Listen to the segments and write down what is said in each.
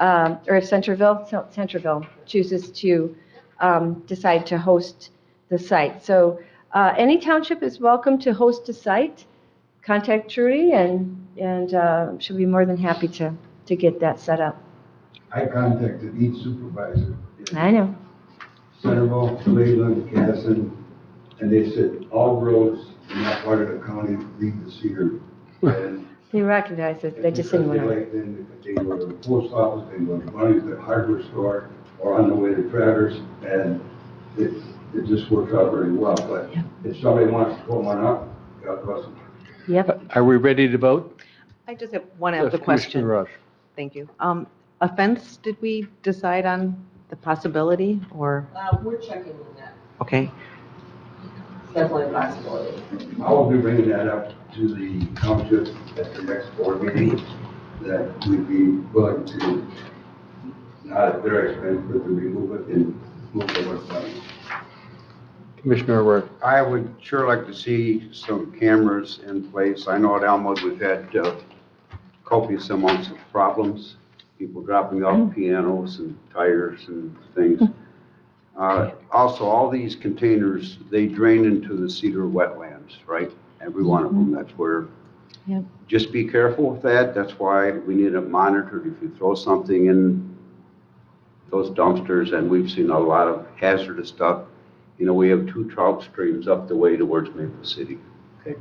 um, or if Centerville, Cen- Centerville chooses to um, decide to host the site. So uh, any township is welcome to host a site. Contact Trudy, and, and uh, she'll be more than happy to, to get that set up. I contacted each supervisor, I know. Centerville, Cleveland, Casson, and they said all roads in that part of the county lead to Cedar. And They recognize it, they just didn't want They to. like then they go to the post office, they go to Bunny's, the hardware store, or on the way to Travers, and it, it just works out very well. But if somebody wants to pull one up, God bless them. Yep. Are we ready to vote? I just have one Yes, other Commissioner question. Rush. Thank you. Um, Offense, did we decide on the possibility or, Uh, we're checking on that, okay, It's definitely a possibility. I will be bringing that up to the township at the next board meeting, that we'd be willing to, not at their expense, but to remove it and move the work money. Commissioner Rush. I would sure like to see some cameras in place. I know at Elmwood, we've had uh, copious amounts of problems, people dropping off pianos and tires and things. Uh, Also, all these containers, they drain into the cedar wetlands, right? Every one of them, that's where. Yep. Just be careful with that, that's why we need it monitored. If you throw something in those dumpsters, and we've seen a lot of hazardous stuff, you know, we have two trout streams up the way towards Maple City. Okay,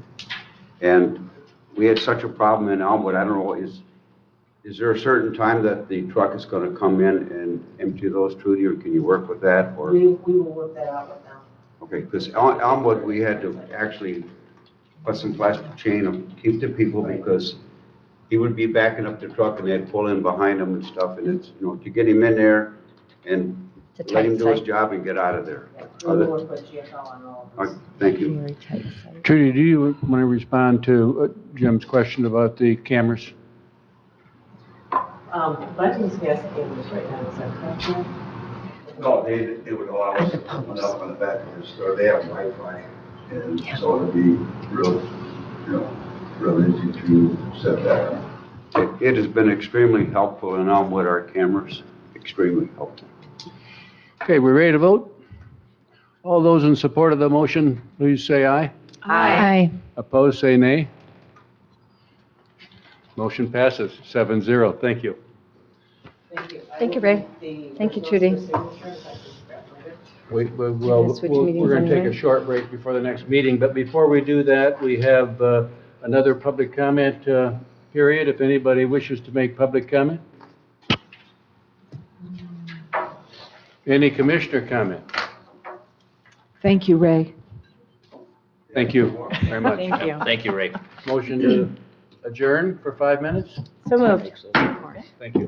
And we had such a problem in Elmwood, I don't know, is, is there a certain time that the truck is gonna come in and empty those, Trudy, or can you work with that, or? We, we will work that out with them. Okay, because Elmwood, we had to actually put some plastic chain and keep the people because he would be backing up the truck and they'd pull in behind him and stuff, and it's, you know, to get him in there and It's a let him tight do his site. job and get out of there. Yeah, We will Other- work with GFL on all of all this. right, Thank you. Very tight site. Trudy, do you want to respond to uh, Jim's question about the cameras? Um, Bundy's asking English right now, is that correct? ma'am? No, they, it would allow us to put one up on the back of the store, they have Wi-Fi, and so it'd be real, you know, real easy to set that up. It it has been extremely helpful in Elmwood, our cameras, extremely helpful. Okay, we're ready to vote? All those in support of the motion, please say aye. Aye. Opposed, say nay. Motion passes, seven zero. Thank you. Thank you. I Thank you, will Ray. need the Thank you, Judy. originals for signature, if I can grab one. We, we- We're well, gonna switch we'll- meetings we're going to take anyway. a short break before the next meeting, but before we do that, we have uh, another public comment uh, period, if anybody wishes to make public comment. Any commissioner comment? Thank you, Ray. Thank you very much. Thank you. Thank you, Ray. Motion to adjourn for five minutes? So moved. Thank you.